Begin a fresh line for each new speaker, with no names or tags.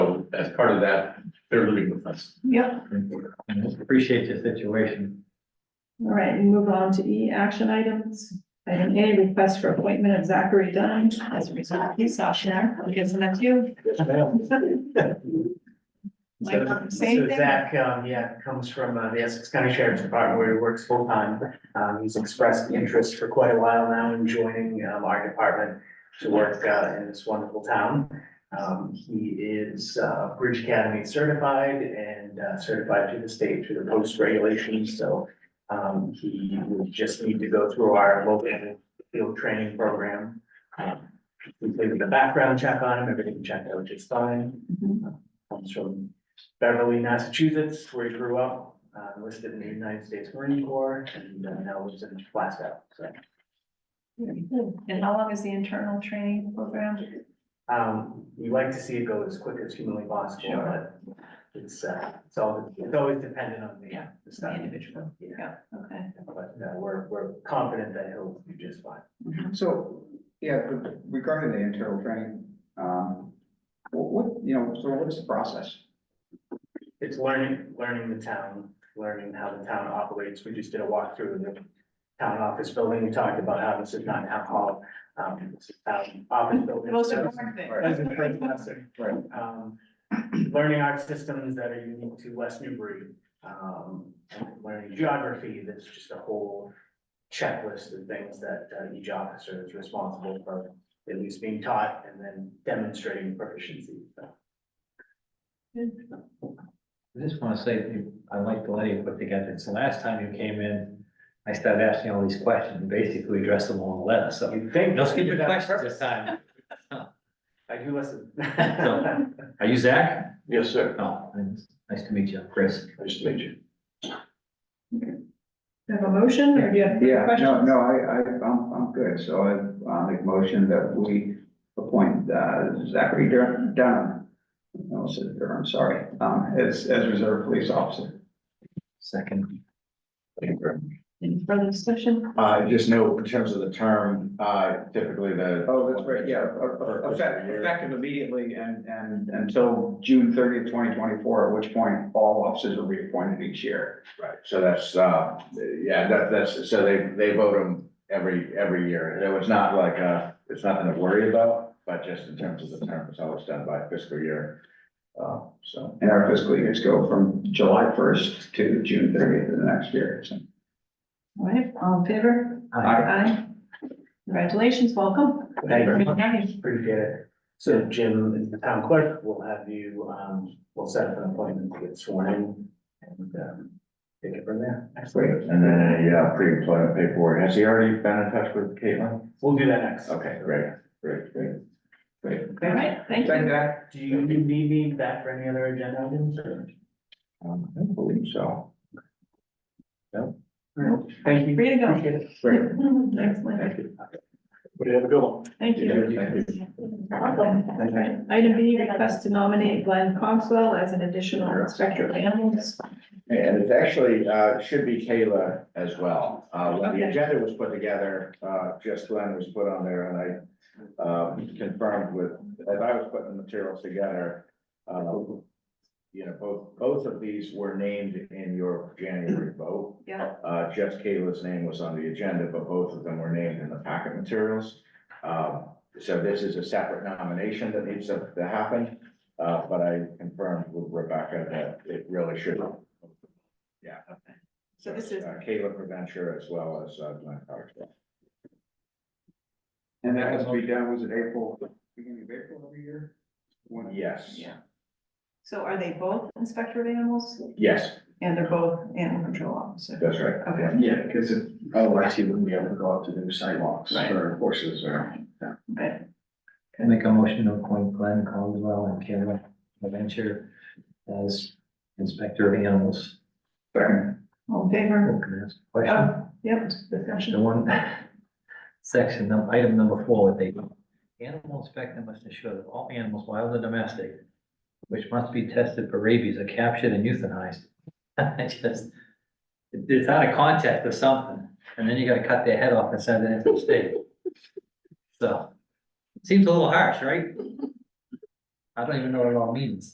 as part of that, they're living with us.
Yep,
Appreciate the situation.
all right, we move on to E, action items. Item A, request for appointment of Zachary Dunn as a result of peace officer. I'll give some to you.
Yes, ma'am.
Like,
So,
same
so
thing?
Zach, um, yeah, comes from uh, the Essex County Sheriff's Department where he works full time. Um, he's expressed interest for quite a while now in joining, um, our department to work, uh, in this wonderful town. Um, he is, uh, Bridge Academy certified and uh, certified to the state through the post regulations, so. Um, he would just need to go through our local field training program. Um, We did the background check on him, everything checked out just fine Uh,
Mhm.
comes from Beverly, Massachusetts, where he grew up, uh, enlisted in the United States Marine Corps, and uh, now lives in Glasgow, so.
Very good. And how long is the internal training program?
Um, we like to see it go as quick as humanly possible,
Sure.
but it's, uh, it's all, it's always dependent on the, the stuff individual. Yeah,
Yeah, okay.
but uh, we're, we're confident that he'll do just fine.
So, yeah, but regarding the internal training, um, what, what, you know, so what is the process?
It's learning, learning the town, learning how the town operates. We just did a walkthrough of the town office building. We talked about how this is not alcohol. Um, this is town office building.
Most important thing.
That was a great lesson.
Right.
Um, learning art systems that are unique to West Newbury, um, and learning geography, that's just a whole checklist of things that uh, each officer is responsible for, at least being taught and then demonstrating proficiency. So,
I just want to say, I like the way you put together, so last time you came in, I started asking all these questions, and basically addressed them all in a letter, so.
You think.
No stupid
That's
questions this
perfect.
time.
I do listen.
No. Are you Zach?
Yes, sir.
No, nice to meet you, Chris.
Nice to meet you.
Do you have a motion or do you have
Yeah,
further
no,
questions?
no, I, I, I'm, I'm good, so I, I make a motion that we appoint uh, Zachary Dur- Dunham. No, I said Durham, sorry, um, as, as reserve police officer.
Second.
Any further discussion?
Uh, just know in terms of the term, uh, typically the.
Oh, that's right, yeah, uh, uh, effect- effective immediately and, and until June thirtieth, twenty twenty-four, at which point all officers are reappointed each year.
Right, so that's, uh, yeah, that, that's, so they, they vote them every, every year. It was not like, uh, it's nothing to worry about, but just in terms of the term, it's always done by fiscal year. Uh, so,
And our fiscal years go from July first to June thirtieth of the next year, so.
All right, all in favor?
Aye.
Aye. Congratulations, welcome.
Thank you.
Good night.
Appreciate it. So Jim, as the town clerk, we'll have you, um, we'll set up an appointment to get sworn in and, um, take it from there.
great. And then, yeah, pre-employment paperwork. Has he already been in touch with Caitlin?
We'll do that next.
Okay, great, great, great. Great.
All right, thank you.
Thank you.
Do you need me back for any other agenda items or?
Um, I don't believe so.
Thank you.
Free to go.
Appreciate it.
Great.
Excellent.
Thank you.
Would have a good one.
Thank you.
Thank you.
All right. Item B, request to nominate Glenn Cogswell as an additional inspector of animals.
And it's actually, uh, should be Kayla as well. Uh, when the
Okay.
agenda was put together, uh, just Glenn was put on there and I, uh, confirmed with, as I was putting the materials together, uh, you know, both, both of these were named in your January vote.
Yeah.
Uh, just Kayla's name was on the agenda, but both of them were named in the packet materials. Um, so this is a separate nomination that needs to to happen, uh, but I confirmed with Rebecca that it really should. Yeah.
So this is,
Uh, Kayla Preventure as well as, uh, Glenn Clark.
And that has to be done, was it April, beginning of April every year? When-
Yes,
yeah. So are they both inspector of animals
yes,
and they're both animal control officer?
that's right.
Okay.
Yeah, because it, otherwise he wouldn't be able to go out to do sidewalks
Right.
or horses or.
Okay.
I make a motion to appoint Glenn Caldwell and Karen Venture as inspector of animals.
All in favor?
Oh, Can I ask a question?
Oh, yep,
The
discussion.
one, section, num- item number four, they, animal inspector must ensure that all animals, wild and domestic, which must be tested for rabies are captured and euthanized. I just, it- it's out of context or something, and then you gotta cut their head off and send it into the state. So, seems a little harsh, right? I don't even know what it all means.